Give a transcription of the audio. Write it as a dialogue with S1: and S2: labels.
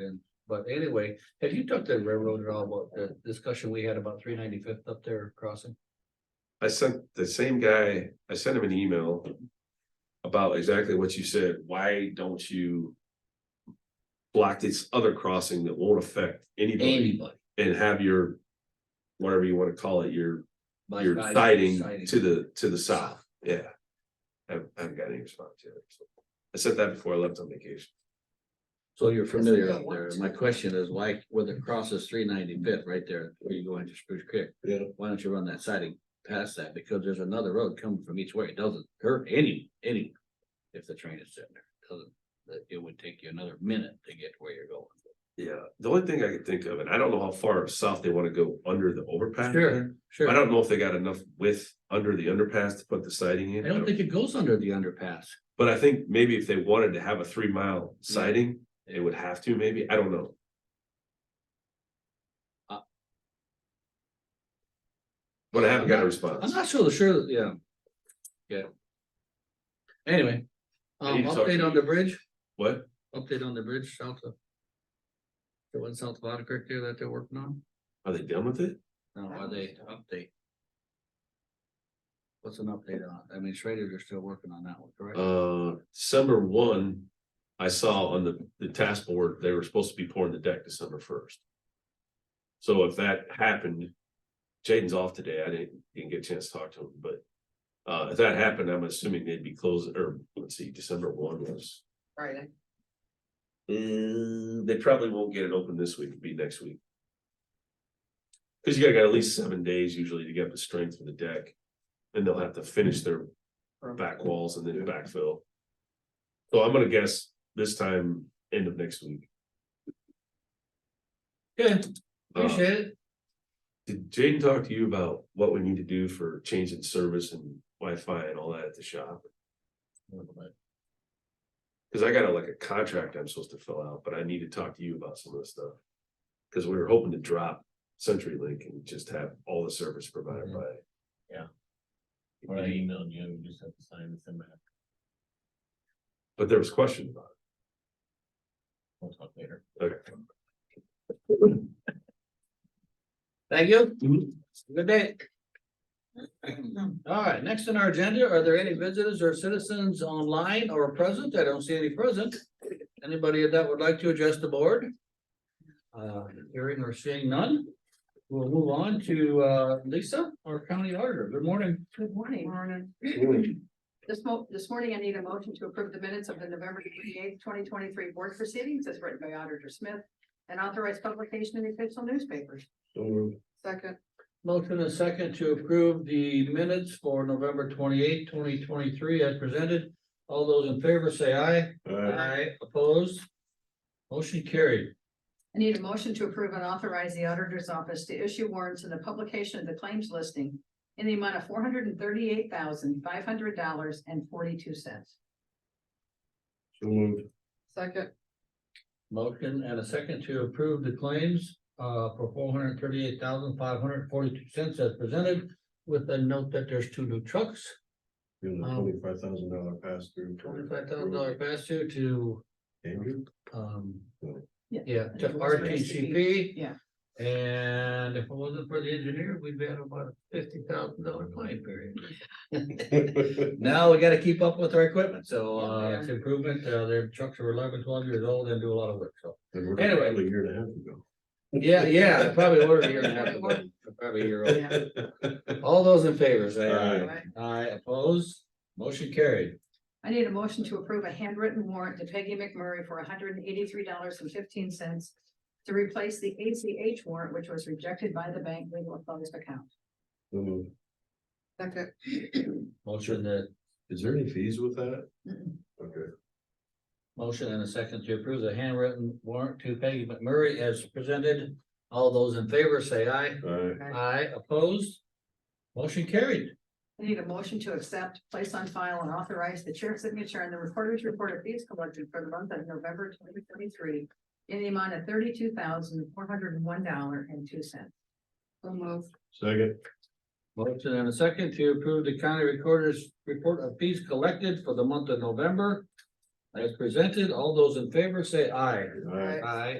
S1: And, but anyway, have you talked to the railroad at all about the discussion we had about three ninety fifth up there crossing?
S2: I sent the same guy, I sent him an email. About exactly what you said, why don't you? Block this other crossing that won't affect anybody
S1: Anybody.
S2: and have your. Whatever you wanna call it, your,
S1: by
S2: your
S1: side,
S2: siding
S1: siding.
S2: to the, to the south, yeah. I haven't, I haven't got any response yet. so. I said that before I left on vacation.
S1: So you're familiar
S3: Doesn't
S1: out
S3: that
S1: there.
S3: want
S1: My
S3: to?
S1: question is why, when it crosses three ninety fifth right there, where you go into Spruce Creek.
S2: Yeah.
S1: Why don't you run that siding past that? Because there's another road coming from each way. It doesn't hurt any, any. If the train is sitting there, It doesn't, that it would take you another minute to get to where you're going.
S2: Yeah, the only thing I could think of, and I don't know how far south they wanna go under the overpass.
S1: Sure, sure.
S2: I don't know if they got enough width under the underpass to put the siding in.
S1: I don't think it goes under the underpass.
S2: But I think maybe if they wanted to have a three mile
S1: Mm.
S2: siding, they would have to, maybe, I don't know.
S1: Uh.
S2: But I haven't got a
S1: I'm
S2: response.
S1: not so sure, that- yeah. Yeah. Anyway,
S2: I
S1: um,
S2: need to talk to
S1: update on the
S2: you.
S1: bridge,
S2: What?
S1: update on the bridge south of. The one south of Otter Creek there that they're working on,
S2: Are they done with it?
S1: no, are they update? What's an update on, it? I mean, Schrader, you're still working on that one, correct?
S2: Uh, December one, I saw on the, the task board, they were supposed to be pouring the deck December first. So if that happened, Jaden's off today. I didn't, didn't get a chance to talk to him, but. Uh, if that happened, I'm assuming they'd be closing, or let's see, December one was.
S3: Friday.
S2: Mm, they probably won't get it open this week, it'll be next week. Cause you gotta got at least seven days usually to get the strength of the deck. And they'll have to finish their back walls and then backfill. So I'm gonna guess this time, end of next week. Yeah. Uh,
S1: Appreciate it,
S2: did Jaden talk to you about what we need to do for changing service and Wi-Fi and all that at the shop? Cause I got a, like a contract I'm supposed to fill out, but I need to talk to you about some of this stuff. Cause we were hoping to drop CenturyLink and just have all the service provided
S4: Mm-hmm.
S2: by.
S4: Yeah.
S2: You
S4: Or I
S2: need-
S4: emailed you, you just have to sign and send back,
S2: But there was question about
S4: we'll talk later.
S2: it. Okay.
S1: thank you, good day. All right, next on our agenda, are there any visitors or citizens online or present? I don't see any present. Anybody that would like to address the board? Uh, hearing or seeing none, we'll move on to, uh, Lisa, our county auditor. Good morning.
S3: Good morning. Morning. This mo- this morning, I need a motion to approve the minutes of the November twenty eighth, twenty twenty three board proceedings as written by Auditor Smith. And authorize publication in the official newspapers. Second.
S1: Motion and second to approve the minutes for November twenty eighth, twenty twenty three as presented. All those in favor say aye. Aye. Opposed? Motion carried.
S3: I need a motion to approve and authorize the auditor's office to issue warrants in the publication of the claims listing. In the amount of four hundred and thirty eight thousand, five hundred dollars and forty two cents. Second.
S1: Motion and a second to approve the claims uh for four hundred thirty-eight thousand five hundred forty-two cents as presented. With the note that there's two new trucks,
S4: Twenty-five thousand dollar pass through.
S1: twenty-five thousand dollar pass through to um.
S3: Yeah.
S1: Yeah, to RTCP.
S3: Yeah.
S1: And if it wasn't for the engineer, we'd be at about a fifty thousand dollar claim period. Now we gotta keep up with our equipment, so uh it's improvement, uh their trucks are 11, 12 years old and do a lot of work, so. Anyway.
S4: Anyway. A year and a half ago.
S1: Yeah, yeah, I probably ordered a year and a half ago, probably a year old.
S3: Yeah.
S1: All those in favor, say
S3: All
S1: aye.
S3: right.
S1: Aye, opposed, motion carried.
S3: I need a motion to approve a handwritten warrant to Peggy McMurray for hundred and eighty-three dollars and fifteen cents to replace the ACH warrant, which was rejected by the bank legal closed account. Second.
S1: Motion that,
S4: Is there any fees with that?
S3: Mm-mm.
S4: Okay.
S1: motion and a second to approve the handwritten warrant to Peggy McMurray as presented. All those in favor say aye.
S2: Uh,
S4: Alright.
S1: Aye, opposed, motion carried.
S3: I need a motion to accept, place on file, and authorize the chair's signature and the recorder's report of fees collected for the month of November twenty twenty-three in the amount of thirty-two thousand, four hundred and one dollar and two cents. So move.
S4: Second.
S1: Motion and a second to approve the county recorder's report of fees collected for the month of November. As presented, all those in favor say aye.
S4: Alright.
S1: Aye,